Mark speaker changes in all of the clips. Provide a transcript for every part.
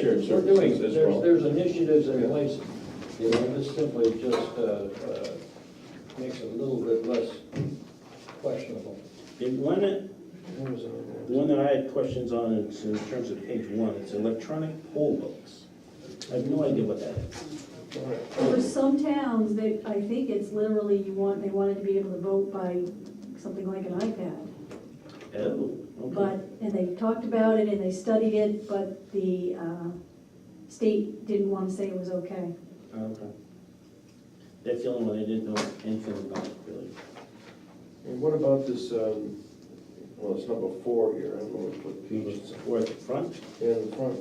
Speaker 1: Shared
Speaker 2: We're doing,
Speaker 1: services
Speaker 2: there's,
Speaker 1: as well.
Speaker 2: there's initiatives in place, you know, this simply just, uh, uh, makes it a little bit less questionable.
Speaker 3: The one, that-
Speaker 2: What was it?
Speaker 3: the one that I had questions on is in terms of page one, it's electronic poll books. I have no idea what that is.
Speaker 4: For some towns, they, I think it's literally you want, they wanted to be able to vote by something like an iPad.
Speaker 3: Oh, okay.
Speaker 4: But, and they talked about it and they studied it, but the uh, state didn't want to say it was okay.
Speaker 3: Oh, Okay. That's the only one I didn't know anything about, really.
Speaker 1: And what about this, um, well, it's number four here, I don't know what page
Speaker 3: Page four at the front,
Speaker 1: Yeah, in the front,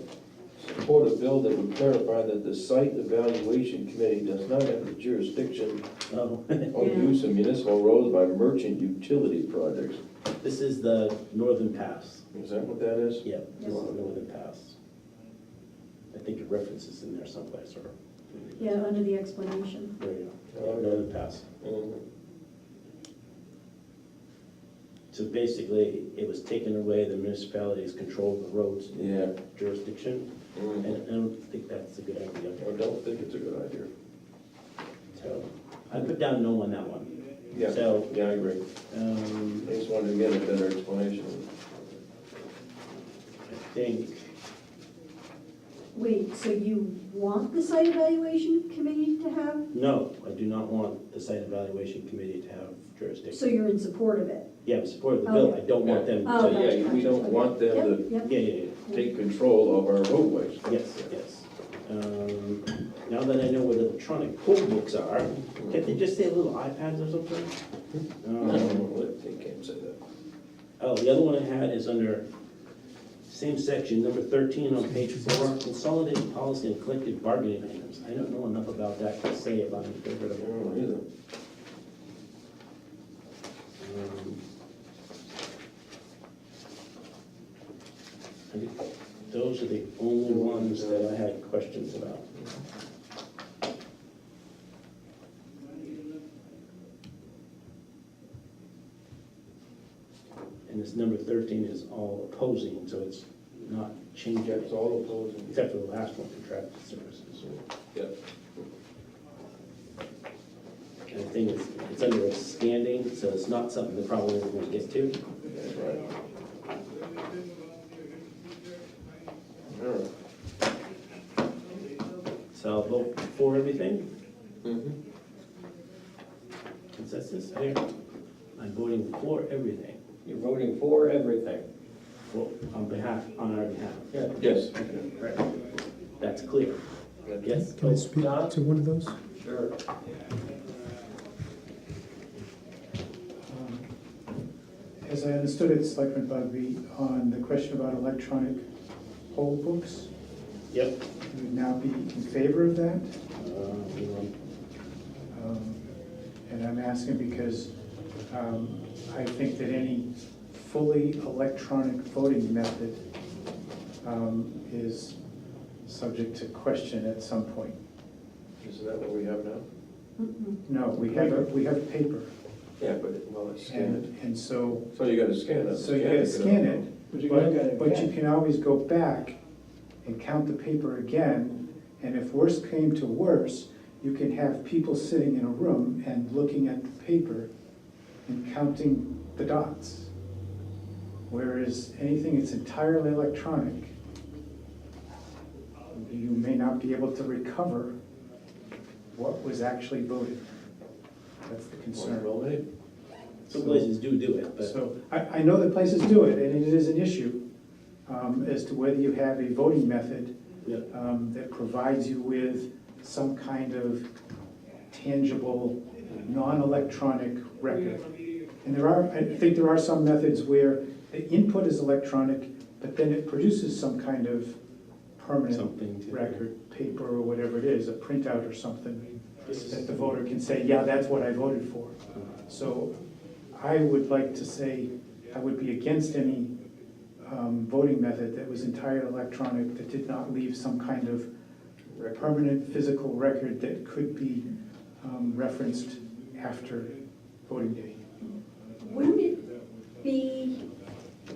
Speaker 1: support a bill that would clarify that the site evaluation committee does not have the jurisdiction
Speaker 3: oh,
Speaker 1: on
Speaker 4: Yeah.
Speaker 1: use of municipal roads by merchant utility projects.
Speaker 3: this is the Northern Pass.
Speaker 1: Is that what that is?
Speaker 3: Yeah, this
Speaker 4: Yes.
Speaker 3: is the Northern Pass. I think it references in there someplace, or.
Speaker 4: Yeah, under the explanation.
Speaker 3: There you go, Yeah, Northern Pass.
Speaker 1: Mm,
Speaker 3: So basically, it was taking away the municipality's control of the roads
Speaker 1: Yeah.
Speaker 3: jurisdiction, and
Speaker 1: Mm,
Speaker 3: I don't think that's a good idea.
Speaker 1: I don't think it's a good idea.
Speaker 3: So, I put down no on that one.
Speaker 1: Yeah,
Speaker 3: So,
Speaker 1: yeah, I agree. I
Speaker 3: um,
Speaker 1: just wanted to get a better explanation.
Speaker 3: I think,
Speaker 4: Wait, so you want the site evaluation committee to have,
Speaker 3: no, I do not want the site evaluation committee to have
Speaker 4: so
Speaker 3: jurisdiction.
Speaker 4: you're in support of it?
Speaker 3: Yeah, I'm supportive of the bill, I don't want them
Speaker 4: Oh,
Speaker 3: to,
Speaker 1: yeah,
Speaker 4: gotcha,
Speaker 1: we don't
Speaker 4: gotcha,
Speaker 1: want them
Speaker 4: okay.
Speaker 1: to-
Speaker 4: Yep, yep.
Speaker 3: yeah, yeah, yeah.
Speaker 1: Take control of our roadways.
Speaker 3: Yes, yes. Um, Now that I know what electronic poll books are, can't they just say little iPads or something?
Speaker 1: No,
Speaker 3: Um,
Speaker 1: they can't say that.
Speaker 3: Oh, the other one I had is under same section, number 13 on page four, consolidated policy and collective bargaining items. I don't know enough about that to say if I'm in favor
Speaker 1: I
Speaker 3: of it.
Speaker 1: don't either.
Speaker 3: Um, I think Those are the only ones that I had questions about. And this number thirteen is all opposing, so it's not changing,
Speaker 1: That's all opposing.
Speaker 3: except for the last one, contracted services.
Speaker 1: Yep.
Speaker 3: And the thing is, it's under a standing, so it's not something that probably everyone gets to.
Speaker 1: That's right. All right.
Speaker 3: So I'll vote for everything,
Speaker 1: Mhm.
Speaker 3: consensus, I, I'm voting for everything,
Speaker 2: You're voting for everything.
Speaker 3: well, on behalf, on our behalf.
Speaker 2: Yeah.
Speaker 1: Yes.
Speaker 3: Right. That's clear, yes?
Speaker 5: Can I speak
Speaker 2: Don?
Speaker 5: to one of those?
Speaker 2: Sure.
Speaker 6: Um, As I understood it, Selectman Bugby, on the question about electronic poll books,
Speaker 3: Yep.
Speaker 6: you would now be in favor of that?
Speaker 3: Uh, hang on.
Speaker 6: Um, And I'm asking because um, I think that any fully electronic voting method um, is subject to question at some point.
Speaker 1: Isn't that what we have now?
Speaker 4: Mm-mm.
Speaker 6: No, we have, a- we have paper,
Speaker 1: Yeah, but, it- well, it's scanned.
Speaker 6: and, and so,
Speaker 1: So you gotta scan it.
Speaker 6: so you gotta scan it,
Speaker 2: But you gotta get
Speaker 6: But,
Speaker 2: it
Speaker 6: but you
Speaker 2: back.
Speaker 6: can always go back and count the paper again, and if worse came to worse, you can have people sitting in a room and looking at the paper and counting the dots. Whereas anything that's entirely electronic, you may not be able to recover what was actually voted. That's the concern.
Speaker 1: Well, maybe.
Speaker 3: Some places do do it, but,
Speaker 6: So I, I know that places do it, and it is an issue um, as to whether you have a voting method
Speaker 3: yeah,
Speaker 6: um, that provides you with some kind of tangible, non-electronic record. And there are, I think there are some methods where the input is electronic, but then it produces some kind of permanent
Speaker 3: something to.
Speaker 6: record, paper or whatever it is, a printout or something,
Speaker 3: This is-
Speaker 6: that the voter can say, yeah, that's what I voted for. So I would like to say, I would be against any um, voting method that was entirely electronic, that did not leave some kind of permanent physical record that could be um, referenced after voting day.
Speaker 4: Wouldn't it be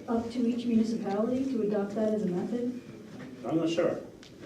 Speaker 4: up to each municipality to adopt that as a method?
Speaker 3: I'm not sure,